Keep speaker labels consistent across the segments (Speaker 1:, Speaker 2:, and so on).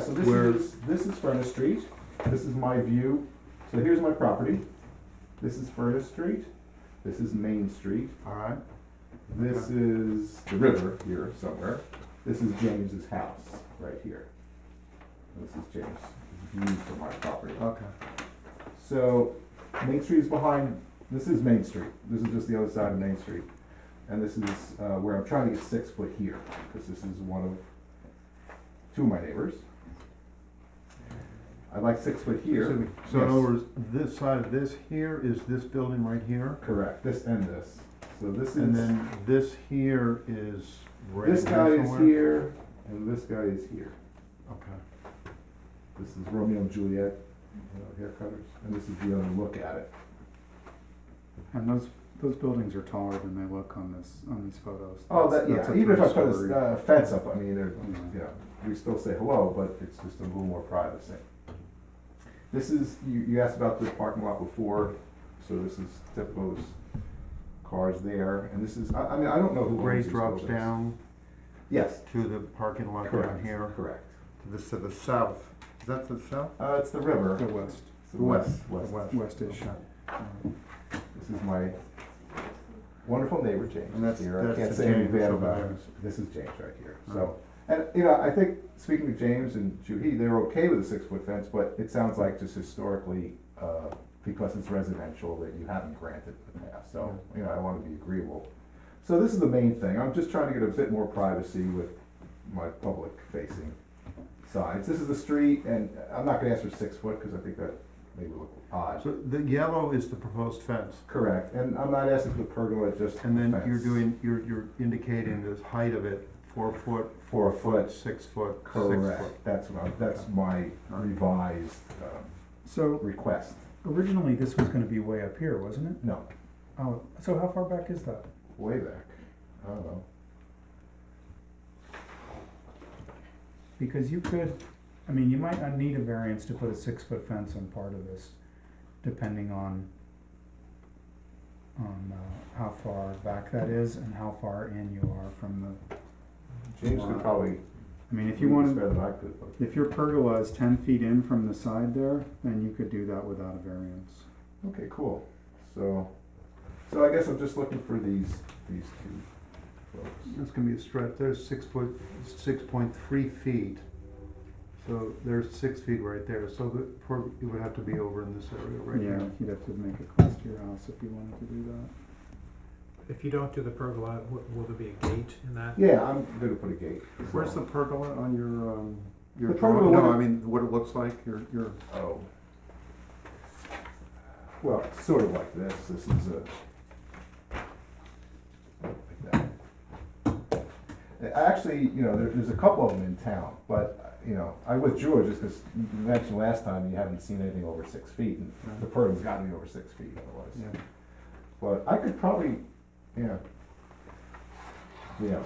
Speaker 1: so this
Speaker 2: Where-
Speaker 1: is, this is Furnace Street, this is my view, so here's my property. This is Furnace Street, this is Main Street,
Speaker 2: Alright,
Speaker 1: this is the river here somewhere, this is James's house, right here. This is James' view from my property.
Speaker 2: okay.
Speaker 1: So Main Street is behind, this is Main Street. This is just the other side of Main Street. And this is uh, where I'm trying to get six foot here, because this is one of, two of my neighbors. I'd like six foot
Speaker 2: So,
Speaker 1: here.
Speaker 2: we- so in
Speaker 1: Yes.
Speaker 2: other words, this side of this here is this building right here,
Speaker 1: Correct, this and this. So this
Speaker 2: and
Speaker 1: is,
Speaker 2: then this here is right
Speaker 1: this
Speaker 2: here
Speaker 1: guy is
Speaker 2: somewhere?
Speaker 1: here, and this guy is here.
Speaker 2: Okay,
Speaker 1: This is Romeo and Juliet, you know, hair cutters, and this is the other look at it.
Speaker 3: And those, those buildings are taller than they look on this, on these photos.
Speaker 1: Oh, that,
Speaker 3: That's- that's
Speaker 1: yeah,
Speaker 3: a
Speaker 1: even if I put
Speaker 3: three-story.
Speaker 1: a uh, fence up, I mean, there,
Speaker 3: Mhm.
Speaker 1: you know, we still say hello, but it's just a little more privacy. This is, you, you asked about the parking lot before, so this is typical, there's cars there, and this is, I, I mean, I don't know who owns
Speaker 2: grade
Speaker 1: these
Speaker 2: drops
Speaker 1: buildings.
Speaker 2: down
Speaker 1: Yes,
Speaker 2: to the parking lot down
Speaker 1: correct,
Speaker 2: here,
Speaker 1: correct.
Speaker 2: to the, to the south, is that to the south?
Speaker 1: Uh, it's the river,
Speaker 3: The west,
Speaker 1: it's the west,
Speaker 2: The
Speaker 1: west.
Speaker 3: west-ish.
Speaker 2: Okay.
Speaker 1: This is my wonderful neighbor, James.
Speaker 2: And that's-
Speaker 1: here. I
Speaker 2: that's
Speaker 1: can't
Speaker 2: the
Speaker 1: say anything
Speaker 2: James
Speaker 1: bad
Speaker 2: over
Speaker 1: about
Speaker 2: there.
Speaker 1: him. This is James right here.
Speaker 2: Right.
Speaker 1: So, and you know, I think speaking to James and Juhi, they're okay with a six foot fence, but it sounds like just historically, uh, because it's residential, that you haven't granted in the past. So, you know, I want to be agreeable. So this is the main thing. I'm just trying to get a bit more privacy with my public facing sides. This is the street, and I'm not going to ask for six foot because I think that may look odd.
Speaker 2: So the yellow is the proposed fence,
Speaker 1: Correct, and I'm not asking for the pergola, just.
Speaker 2: and then you're
Speaker 1: fence.
Speaker 2: doing, you're, you're indicating the height of it, four foot,
Speaker 1: Four foot,
Speaker 2: six foot, six foot.
Speaker 1: correct, that's what I, that's my revised, um,
Speaker 3: So
Speaker 1: request,
Speaker 3: originally, this was gonna be way up here, wasn't it?
Speaker 1: no,
Speaker 3: Oh, so how far back is that?
Speaker 1: way back, I don't know.
Speaker 3: Because you could, I mean, you might not need a variance to put a six-foot fence on part of this, depending on, on uh, how far back that is and how far in you are from the,
Speaker 1: James could probably.
Speaker 3: I mean, if you wanted,
Speaker 1: Better than I could, but,
Speaker 3: If your pergola is ten feet in from the side there, then you could do that without a variance.
Speaker 1: okay, cool, so, so I guess I'm just looking for these, these two folks.
Speaker 2: That's gonna be a stretch, there's six foot, six point three feet. So there's six feet right there, so the, for, it would have to be over in this area right
Speaker 3: Yeah,
Speaker 2: here.
Speaker 3: you'd have to make it close to your house if you wanted to do that.
Speaker 4: If you don't do the pergola, w- will there be a gate in that?
Speaker 1: Yeah, I'm gonna put a gate.
Speaker 2: Where's the
Speaker 1: so-
Speaker 2: pergola on your, um, your
Speaker 1: The pergola
Speaker 2: drawing? No,
Speaker 1: would-
Speaker 2: I mean, what it looks like, your, your,
Speaker 1: Oh. Well, it's sort of like this, this is a. like that. Uh, Actually, you know, there, there's a couple of them in town, but, uh, you know, I withdrew it just because you mentioned last time you haven't seen anything over six feet, and the pergola's gotta be over six feet
Speaker 2: yeah.
Speaker 1: otherwise. But I could probably, yeah. Yeah,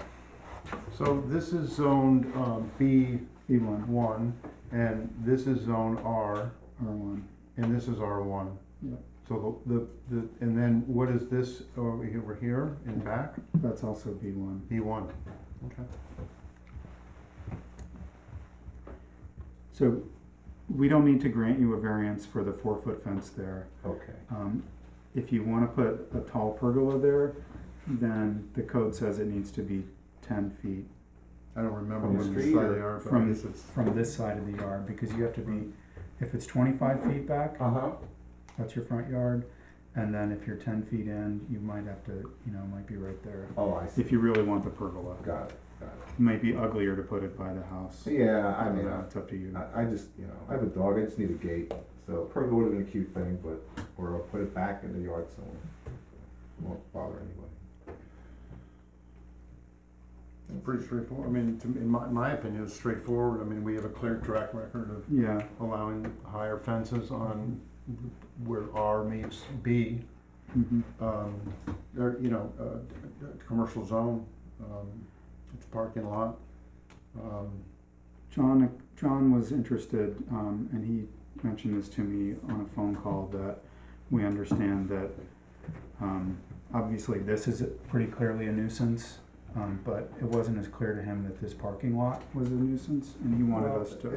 Speaker 2: So this is zoned, um, B
Speaker 3: E one,
Speaker 2: one, and this is zone R,
Speaker 3: R one,
Speaker 2: and this is R one.
Speaker 3: Yeah.
Speaker 2: So the, the, the- and then what is this over here, over here in back?
Speaker 3: that's also B one.
Speaker 2: B one. Okay.
Speaker 3: So we don't need to grant you a variance for the four-foot fence there.
Speaker 1: okay,
Speaker 3: Um, if you wanna put a tall pergola there, then the code says it needs to be ten feet
Speaker 2: I don't remember
Speaker 1: From the
Speaker 2: what the
Speaker 1: street
Speaker 2: side
Speaker 1: or
Speaker 2: they are, but I
Speaker 3: from-
Speaker 2: guess it's.
Speaker 3: from this side of the yard, because you have to be, if it's twenty-five feet back,
Speaker 1: uh-huh,
Speaker 3: that's your front yard. And then if you're ten feet in, you might have to, you know, it might be right there.
Speaker 1: oh, I see,
Speaker 3: If you really want the pergola, it
Speaker 1: got it, got it.
Speaker 3: might be uglier to put it by the house.
Speaker 1: Yeah, I mean, uh, I-
Speaker 3: It's up to you.
Speaker 1: I, I just, you know, I have a dog, I just need a gate, so pergola would have been a cute thing, but, or I'll put it back in the yard somewhere. It Won't bother anybody.
Speaker 2: Pretty straightforward, I mean, to, me- in my, my opinion, it's straightforward, I mean, we have a clear track record of
Speaker 3: Yeah,
Speaker 2: allowing higher fences on where R meets B,
Speaker 3: mhm.
Speaker 2: um, or, you know, uh, d- d- commercial zone, um, it's parking lot. Um,
Speaker 3: John, John was interested, um, and he mentioned this to me on a phone call, that we understand that, um, obviously this is pretty clearly a nuisance, um, but it wasn't as clear to him that this parking lot was a nuisance, and he wanted
Speaker 1: Well,
Speaker 3: us to